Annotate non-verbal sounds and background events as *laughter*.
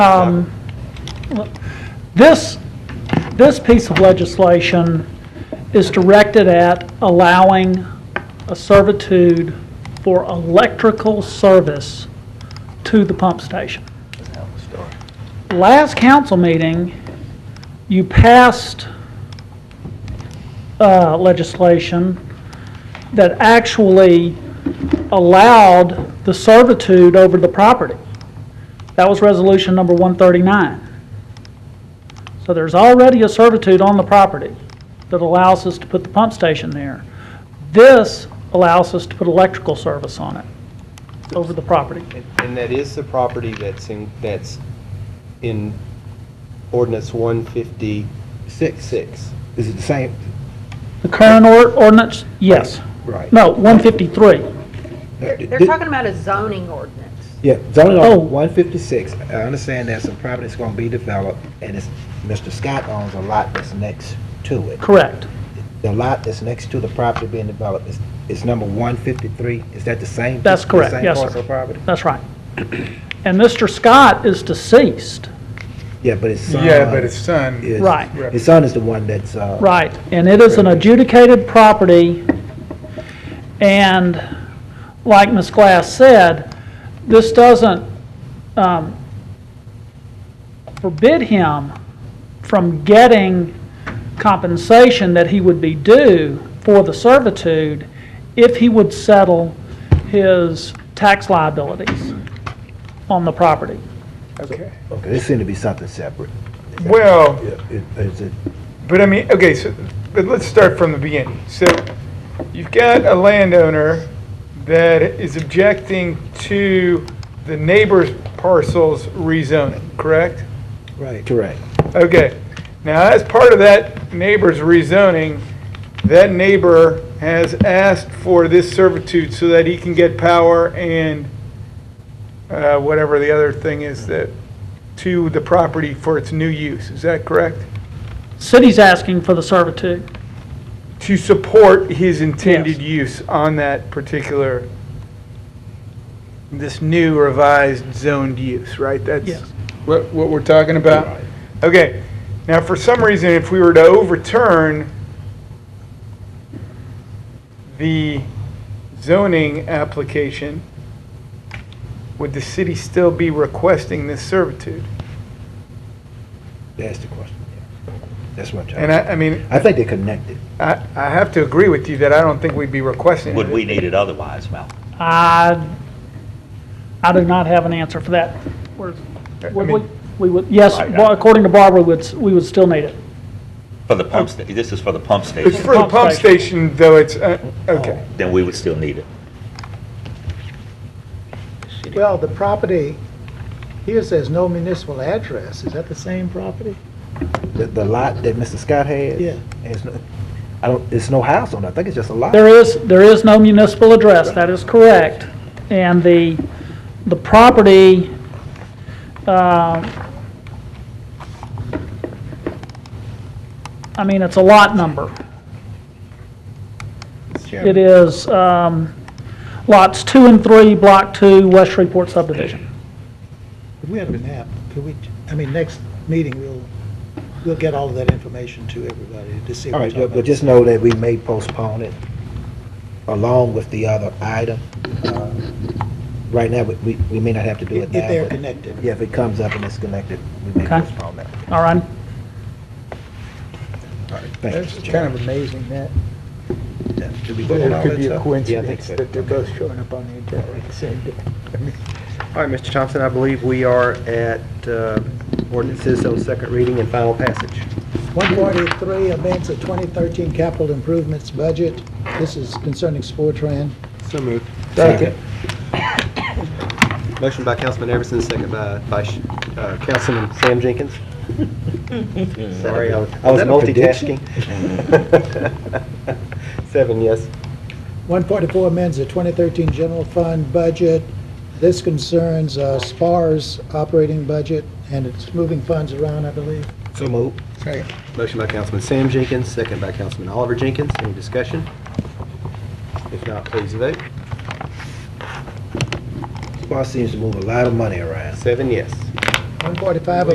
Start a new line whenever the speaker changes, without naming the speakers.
Um, This, this piece of legislation is directed at allowing a servitude for electrical service to the pump station. Last council meeting, you passed uh, legislation that actually allowed the servitude over the property. That was resolution number 139. So there's already a servitude on the property that allows us to put the pump station there. This allows us to put electrical service on it, over the property.
And that is the property that's in, that's in ordinance one
Six.
fifty-six.
Is it the same?
The current or- ordinance, yes.
Right.
No, 153.
They're, they're talking about a zoning ordinance.
Yeah, zoning
Oh.
ordinance one fifty-six. I understand there's some property that's gonna be developed, and it's, Mr. Scott owns a lot that's next to it.
Correct.
The lot that's next to the property being developed is, is number one fifty-three. Is that the same?
That's
the
correct.
same
Yes, sir.
parcel of property?
That's right. And Mr. Scott is deceased.
Yeah, but it's son.
Yeah, but his son.
is-
Right.
His son is the one that's, uh.
Right, and it is an adjudicated property, and like Ms. Glass said, this doesn't um, forbid him from getting compensation that he would be due for the servitude if he would settle his tax liabilities on the property.
Okay.
Okay, this seemed to be something separate.
Well,
Yeah, it- Is it,
but I mean, okay, so, but let's start from the beginning. So you've got a landowner that is objecting to the neighbor's parcel's rezoning, correct?
right. Correct.
Okay. Now, as part of that neighbor's rezoning, that neighbor has asked for this servitude so that he can get power and uh, whatever the other thing is that, to the property for its new use. Is that correct?
City's asking for the servitude.
To support his intended
Yes.
use on that particular, this new revised zoned use, right?
Yes.
That's what, what we're talking about? Okay, now for some reason, if we were to overturn the zoning application, would the city still be requesting this servitude?
That's the question, yeah. That's what I'm trying
And
to.
I, I mean,
I think they're connected.
I, I have to agree with you that I don't think we'd be requesting it.
Would we need it otherwise, Mel?
I, I do not have an answer for that. Would
I
we,
mean-
we would, yes,
Right.
well, according to Barbara, we'd, s- we would still need it.
For the pump sta, this is for the pump
It's
station,
for the pump station, though, it's, uh, okay.
then we would still need it.
Well, the property, here says no municipal address, is that the same property?
The, the lot that Mr. Scott had?
Yeah.
It's, no- I don't, it's no house on it, I think it's just a lot.
There is, there is no municipal address, that is correct. And the, the property, uh, I mean, it's a lot number. It is um, lots two and three, block two, West Shreveport subdivision.
If we have a map, could we, I mean, next meeting, we'll, we'll get all of that information to everybody to see
All
what we're
right,
talking
but
about.
but just know that we may postpone it along with the other item. Uh, Right now, we- we, we may not have to do it
If
now.
if they're
but-
connected.
Yeah, if it comes up and it's connected, we may
Okay.
postpone that.
All right?
All right, thank you, Mr.
kind
Chairman.
of amazing that
Should we vote on
it
all
could
that
be a
stuff? Yeah, I think
coincidence
so.
that they're both showing up on the agenda at the same day.
All right, Mr. Thompson, I believe we are at uh, ordinances on second reading and final passage.
143, amends the 2013 capital improvements budget. This is concerning Sportran.
So moved.
Second.
Motion by Councilman Everson, second by Vice, uh, Councilman Sam Jenkins. Sorry, I was I was
Is that a prediction?
multitasking. *laughs* Seven, yes.
144 amends the 2013 general fund budget. This concerns uh, SPAR's operating budget, and it's moving funds around, I believe.
So moved.
Motion by Councilman Sam Jenkins, second by Councilman Oliver Jenkins. Any discussion? If not, please vote.
Boss seems to move a lot of money around.
Seven, yes.
145